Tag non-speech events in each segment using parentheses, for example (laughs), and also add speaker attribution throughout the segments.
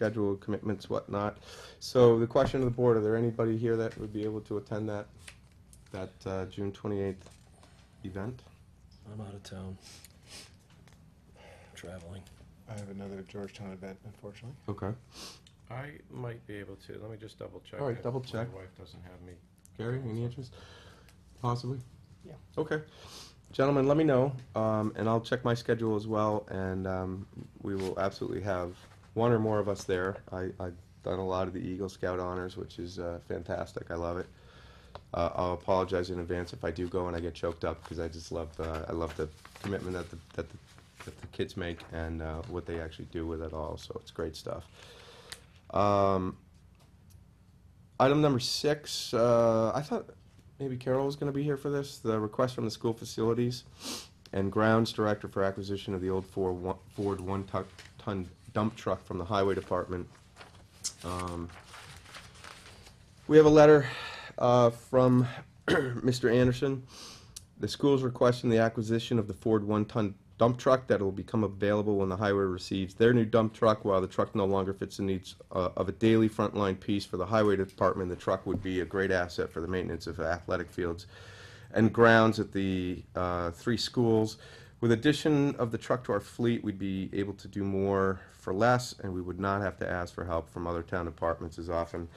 Speaker 1: schedule commitments, whatnot. So the question of the board, are there anybody here that would be able to attend that, that uh, June 28th event?
Speaker 2: I'm out of town. Traveling.
Speaker 3: I have another Georgetown event, unfortunately.
Speaker 1: Okay.
Speaker 4: I might be able to, let me just double check.
Speaker 1: All right,
Speaker 4: if
Speaker 1: double check.
Speaker 4: My wife doesn't have me.
Speaker 1: Gary, any interest? Possibly?
Speaker 3: Yeah.
Speaker 1: Okay. Gentlemen, let me know, um, and I'll check my schedule as well, and, um, we will absolutely have one or more of us there. I, I've done a lot of the Eagle Scout honors, which is, uh, fantastic. I love it. Uh, I'll apologize in advance if I do go and I get choked up, because I just love, uh, I love the commitment that the, that the, that the kids make and, uh, what they actually do with it all, so it's great stuff. Um, Item number six, uh, I thought maybe Carol was going to be here for this, the request from the school facilities and grounds director for acquisition of the old four one- Ford one-ton dump truck from the highway department. Um, We have a letter uh, from (clears throat) Mr. Anderson. The school is requesting the acquisition of the Ford one-ton dump truck that will become available when the highway receives their new dump truck. While the truck no longer fits the needs uh, of a daily frontline piece for the highway department, the truck would be a great asset for the maintenance of athletic fields and grounds at the uh, three schools. With addition of the truck to our fleet, we'd be able to do more for less, and we would not have to ask for help from other town departments as often.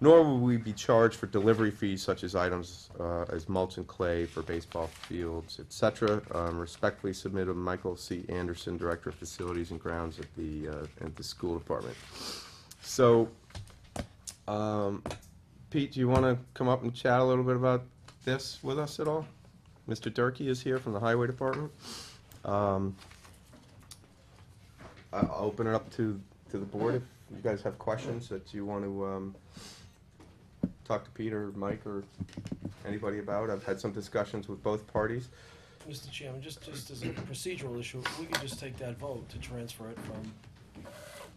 Speaker 1: Nor would we be charged for delivery fees such as items uh, as mulch and clay for baseball fields, et cetera. Um, Respectfully submitted, Michael C. Anderson, Director of Facilities and Grounds at the, uh, at the school department. So, um, Pete, do you want to come up and chat a little bit about this with us at all? Mr. Durkey is here from the Highway Department. Um, I- I'll open it up to, to the board if you guys have questions that you want to um, talk to Peter, Mike, or anybody about. I've had some discussions with both parties.
Speaker 2: Mr. Chairman, just, just as a procedural issue, we could just take that vote to transfer it from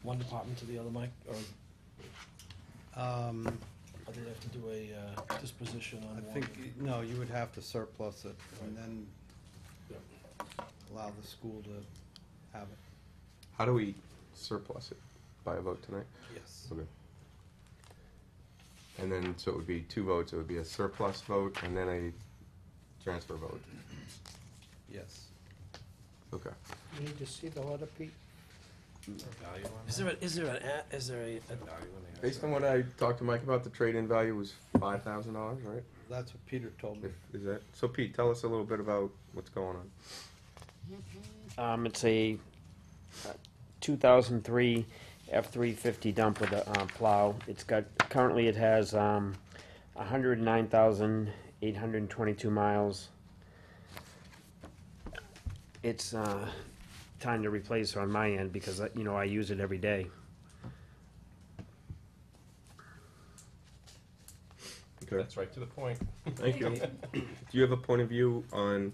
Speaker 2: one department to the other, Mike, or
Speaker 5: Um,
Speaker 2: I think we have to do a uh, disposition
Speaker 5: I
Speaker 2: on one.
Speaker 5: think, no, you would have to surplus it and then
Speaker 2: Yep.
Speaker 5: allow the school to have it.
Speaker 1: How do we surplus it by a vote tonight?
Speaker 5: Yes.
Speaker 1: Okay. And then, so it would be two votes, it would be a surplus vote and then a transfer vote.
Speaker 5: Yes.
Speaker 1: Okay.
Speaker 6: You need to see the letter, Pete?
Speaker 4: Value on
Speaker 2: Is
Speaker 4: that?
Speaker 2: there, a- is there an, a- is there a, a-
Speaker 4: Value on the
Speaker 1: Based on
Speaker 4: asset?
Speaker 1: what I talked to Mike about, the trade-in value was five thousand dollars, right?
Speaker 5: That's what Peter told me.
Speaker 1: If, is that, so Pete, tell us a little bit about what's going on.
Speaker 7: Um, it's a uh, 2003 F-350 dump with a uh, plow. It's got, currently it has, um, 109,822 miles. It's, uh, time to replace on my end because, uh, you know, I use it every day.
Speaker 1: Okay.
Speaker 4: That's right to the point.
Speaker 1: Thank you. Do you have a point of view on,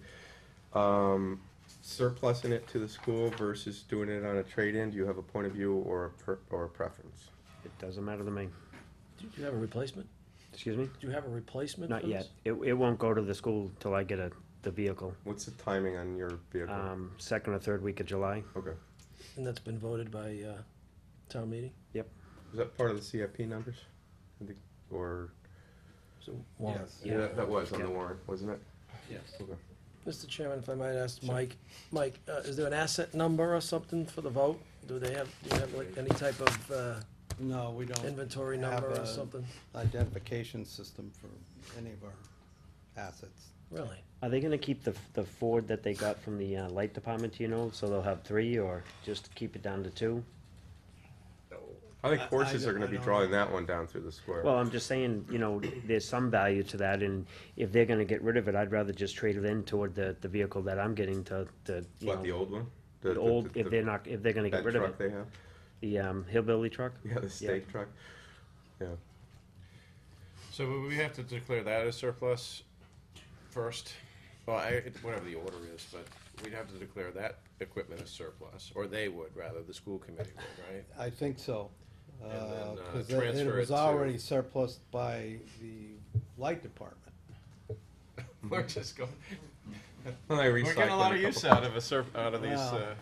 Speaker 1: um, surplusing it to the school versus doing it on a trade-in? Do you have a point of view or a per, or a preference?
Speaker 7: It doesn't matter to me.
Speaker 2: do you have a replacement?
Speaker 7: Excuse me?
Speaker 2: Do you have a replacement for
Speaker 7: Not yet.
Speaker 2: this?
Speaker 7: It, it won't go to the school till I get a, the vehicle,
Speaker 1: What's the timing on your vehicle?
Speaker 7: um, second or third week of July.
Speaker 1: Okay.
Speaker 2: And that's been voted by uh, town meeting?
Speaker 1: Is that part of the CIP numbers? I think- Or,
Speaker 2: So, Warren.
Speaker 5: Yes.
Speaker 7: Yeah.
Speaker 1: that, that was on the
Speaker 7: Yeah.
Speaker 1: warrant, wasn't it?
Speaker 5: Yes.
Speaker 2: Mr. Chairman, if I might ask Mike, Mike, uh, is there an asset number or something for the vote? Do they have, do you have like any type of uh,
Speaker 5: No, we don't
Speaker 2: inventory
Speaker 5: Have
Speaker 2: number or
Speaker 5: a-
Speaker 2: something?
Speaker 5: identification system for any of our assets.
Speaker 2: Really?
Speaker 7: Are they gonna keep the, the Ford that they got from the uh, light department, do you know, so they'll have three, or just keep it down to two?
Speaker 1: I think
Speaker 5: I- I
Speaker 1: horses
Speaker 5: don't-
Speaker 1: are gonna
Speaker 5: I
Speaker 1: be
Speaker 5: don't
Speaker 1: drawing that one down through the square.
Speaker 7: Well, I'm just saying, you know, there's some value to that, and if they're gonna get rid of it, I'd rather just trade it in toward the, the vehicle that I'm getting to, to, you
Speaker 1: What, the
Speaker 7: know.
Speaker 1: old one?
Speaker 7: The old, if
Speaker 1: the-
Speaker 7: they're not, if they're gonna
Speaker 1: That
Speaker 7: get rid of
Speaker 1: truck
Speaker 7: it,
Speaker 1: they have?
Speaker 7: the, um, hillbilly truck?
Speaker 1: Yeah, the state truck. Yeah.
Speaker 4: So would we have to declare that as surplus first? Well, I, it- whatever the order is, but we'd have to declare that equipment as surplus, or they would, rather, the school committee
Speaker 1: (laughs)
Speaker 4: would, right?
Speaker 5: I think so.
Speaker 4: And then, uh,
Speaker 5: Because it
Speaker 4: transfer it
Speaker 5: was
Speaker 4: to-
Speaker 5: already surplus by the light department.
Speaker 4: We're just going,
Speaker 1: Well, they
Speaker 4: we're getting a lot
Speaker 1: recycled
Speaker 4: of uh,
Speaker 1: couple-
Speaker 4: use out of a sur, out of these,
Speaker 5: Wow.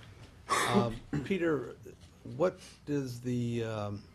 Speaker 4: uh,
Speaker 5: Um, Peter, what is the, um,